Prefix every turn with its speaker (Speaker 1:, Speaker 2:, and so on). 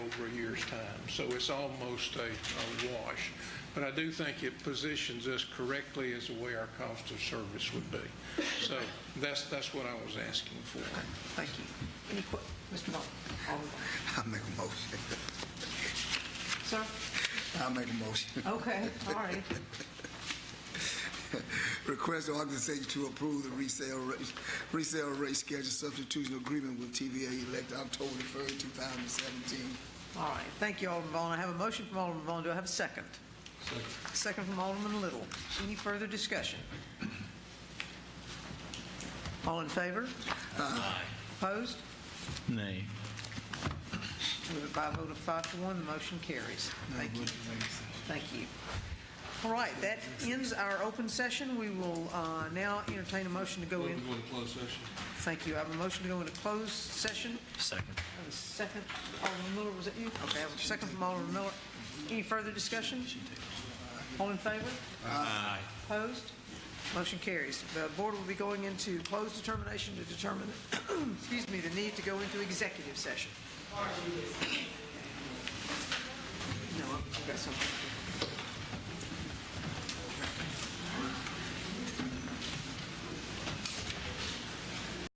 Speaker 1: several years' time. So it's almost a a wash. But I do think it positions us correctly as the way our cost of service would be. So that's, that's what I was asking for.
Speaker 2: Thank you. Any que, Mr. Vaughn? Alderman.
Speaker 3: I make a motion.
Speaker 2: Sir?
Speaker 3: I make a motion.
Speaker 2: Okay, all right.
Speaker 3: Request the organization to approve the resale rate, resale rate schedule substitution agreement with TVA elect October the first, two thousand and seventeen.
Speaker 2: All right, thank you, Alderman Vaughn. I have a motion from Alderman Vaughn. Do I have a second? Second. Second from Alderman Little. Any further discussion? All in favor? Aye. Opposed?
Speaker 4: Nay.
Speaker 2: By a vote of five to one, the motion carries. Thank you. Thank you. All right, that ends our open session. We will uh, now entertain a motion to go in.
Speaker 5: Going to closed session.
Speaker 2: Thank you. I have a motion to go into closed session.
Speaker 4: Second.
Speaker 2: I have a second. Alderman Miller, was it you? Okay, I have a second from Alderman Miller. Any further discussion? All in favor?
Speaker 4: Aye.
Speaker 2: Opposed? Motion carries. The board will be going into closed determination to determine, excuse me, the need to go into executive session. No, I've got something.